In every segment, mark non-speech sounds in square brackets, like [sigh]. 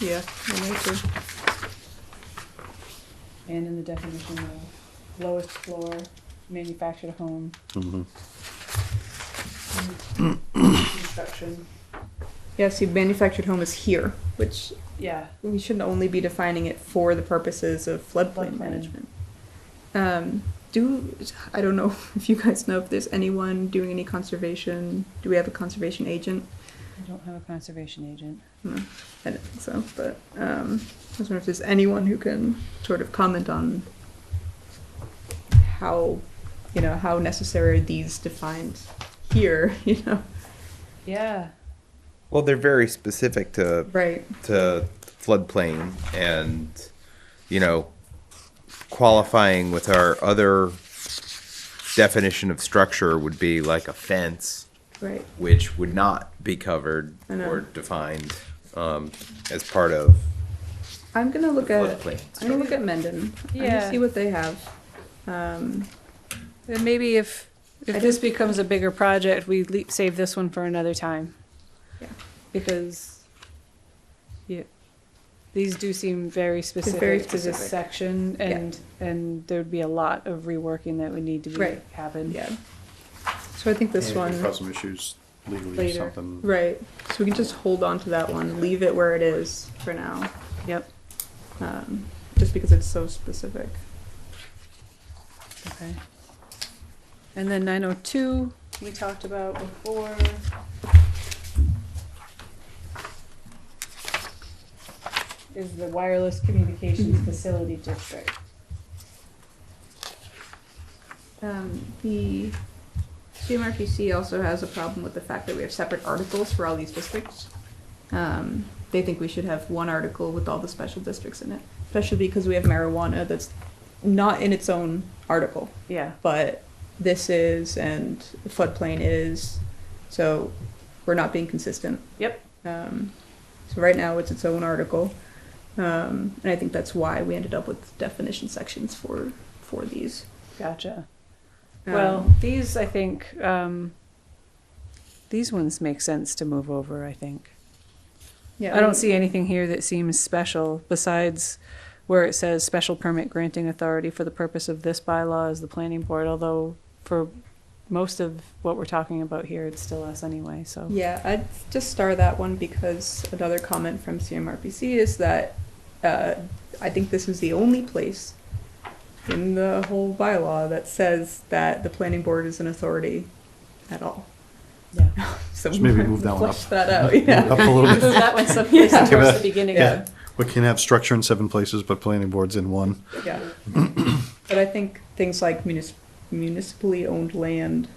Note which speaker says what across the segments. Speaker 1: Yeah, I need to.
Speaker 2: and in the definition of lowest floor, manufactured home,
Speaker 3: Mm-hmm.
Speaker 2: construction,
Speaker 1: Yeah, see, manufactured home is here, which
Speaker 2: yeah,
Speaker 1: we shouldn't only be defining it for the purposes of floodplain
Speaker 2: Floodplain.
Speaker 1: management. Um, do, I don't know [laughs] if you guys know if there's anyone doing any conservation, do we have a conservation agent?
Speaker 2: I don't have a conservation agent.
Speaker 1: No, I don't think so, but, um, I was wondering if there's anyone who can sort of comment on how, you know, how necessary are these defined here, [laughs] you know?
Speaker 2: Yeah,
Speaker 4: Well, they're very specific to
Speaker 1: Right.
Speaker 4: to floodplain and you know qualifying with our other definition of structure would be like a fence,
Speaker 1: Right,
Speaker 4: which would not be covered
Speaker 1: I know.
Speaker 4: or defined um, as part of
Speaker 1: I'm gonna look at,
Speaker 4: floodplain.
Speaker 1: I'm gonna look at Mendon, I'm gonna
Speaker 2: Yeah.
Speaker 1: see what they have. Um,
Speaker 2: and maybe if,
Speaker 1: I
Speaker 2: if this becomes a bigger project, we leap, save this one for another time.
Speaker 1: Yeah.
Speaker 2: Because, yeah, these do seem very
Speaker 1: very
Speaker 2: specific to this
Speaker 1: specific.
Speaker 2: section,
Speaker 1: Yeah.
Speaker 2: and, and there'd be a lot of reworking that would need to be,
Speaker 1: Right.
Speaker 2: happen.
Speaker 1: yeah, so I think this
Speaker 3: And it could
Speaker 1: one,
Speaker 3: Cause some issues legally,
Speaker 2: Later.
Speaker 3: something.
Speaker 1: right, so we can just hold on to that one, leave it where it is for now,
Speaker 2: Yep,
Speaker 1: um, just because it's so specific.
Speaker 2: okay. And then nine oh two, we talked about before. Is the wireless communications facility district.
Speaker 1: Um, the CMRPC also has a problem with the fact that we have separate articles for all these districts. Um, they think we should have one article with all the special districts in it, especially because we have marijuana that's not in its own article,
Speaker 2: Yeah,
Speaker 1: but this is and the floodplain is, so we're not being consistent.
Speaker 2: Yep.
Speaker 1: Um, so right now it's its own article, um, and I think that's why we ended up with definition sections for for these.
Speaker 2: gotcha.
Speaker 1: Um,
Speaker 2: Well, these, I think, um, these ones make sense to move over, I think.
Speaker 1: yeah,
Speaker 2: I don't see anything here that seems special besides where it says special permit granting authority for the purpose of this bylaw is the planning board, although for most of what we're talking about here, it's still us anyway, [laughs] so.
Speaker 1: Yeah, I'd just star that one because another comment from CMRPC is that uh, I think this is the only place in the whole bylaw that says that the planning board is an authority at all.
Speaker 2: Yeah.
Speaker 1: [laughs] So
Speaker 3: Just maybe
Speaker 1: [laughs]
Speaker 3: [laughs] move that one
Speaker 1: flesh
Speaker 3: up.
Speaker 1: that out, yeah.
Speaker 3: Up
Speaker 1: [laughs]
Speaker 3: a little bit.
Speaker 2: That went someplace
Speaker 1: Yeah.
Speaker 2: towards the beginning
Speaker 3: Yeah.
Speaker 2: of,
Speaker 3: We can have structure in seven places, but planning board's in one.
Speaker 1: Yeah. [clears throat] But I think things like munis- municipally owned land,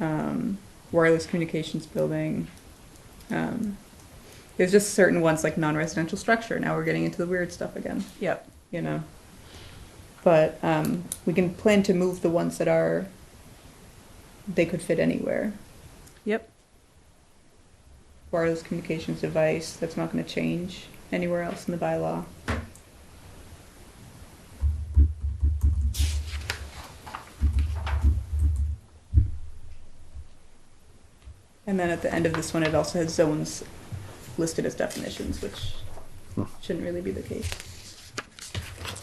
Speaker 1: um, wireless communications building, um, there's just certain ones like non-residential structure. Now we're getting into the weird stuff again,
Speaker 2: yep,
Speaker 1: you know? But, um, we can plan to move the ones that are, they could fit anywhere.
Speaker 2: yep,
Speaker 1: Wireless communications device, that's not gonna change anywhere else in the bylaw. And then at the end of this one, it also has zones listed as definitions, which
Speaker 3: Hmm.
Speaker 1: shouldn't really be the case.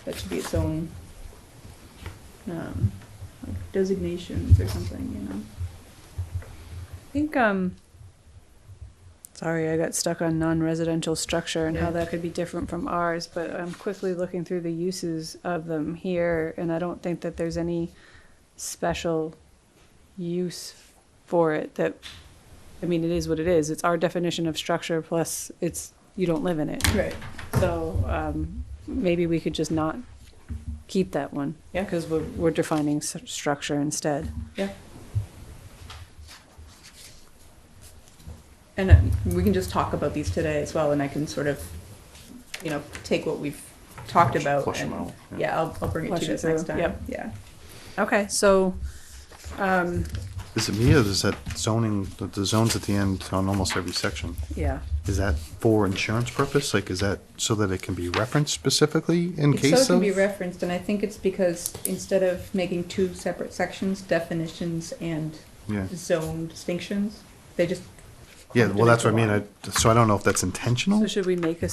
Speaker 1: That should be its own um, like designations or something, you know.
Speaker 2: I think, um, sorry, I got stuck on non-residential structure and
Speaker 1: Yeah.
Speaker 2: how that could be different from ours, but I'm quickly looking through the uses of them here, and I don't think that there's any special use for it that, I mean, it is what it is. It's our definition of structure plus it's, you don't live in it.
Speaker 1: Right.
Speaker 2: So, um, maybe we could just not keep that one.
Speaker 1: Yeah.
Speaker 2: Cause we're, we're defining s- structure instead.
Speaker 1: And uh, we can just talk about these today as well, and I can sort of, you know, take what we've talked
Speaker 3: Flush-
Speaker 1: about.
Speaker 3: flush 'em
Speaker 1: and-
Speaker 3: out, yeah.
Speaker 1: Yeah, I'll, I'll bring it to
Speaker 2: Flush
Speaker 1: you
Speaker 2: it
Speaker 1: guys next
Speaker 2: through,
Speaker 1: time.
Speaker 2: yep.
Speaker 1: Yeah.
Speaker 2: Okay, so, um,
Speaker 3: Is it me or is that zoning, the- the zones at the end on almost every section?
Speaker 2: yeah.
Speaker 3: Is that for insurance purpose? Like, is that so that it can be referenced specifically in
Speaker 1: It's so it
Speaker 3: case
Speaker 1: can
Speaker 3: of?
Speaker 1: be referenced, and I think it's because instead of making two separate sections, definitions and
Speaker 3: Yeah,
Speaker 1: zone distinctions, they just.
Speaker 3: yeah,
Speaker 1: clumped
Speaker 3: well,
Speaker 1: it
Speaker 3: that's what I
Speaker 1: into
Speaker 3: mean.
Speaker 1: one.
Speaker 3: I, so I don't know if that's intentional.
Speaker 2: So should we make a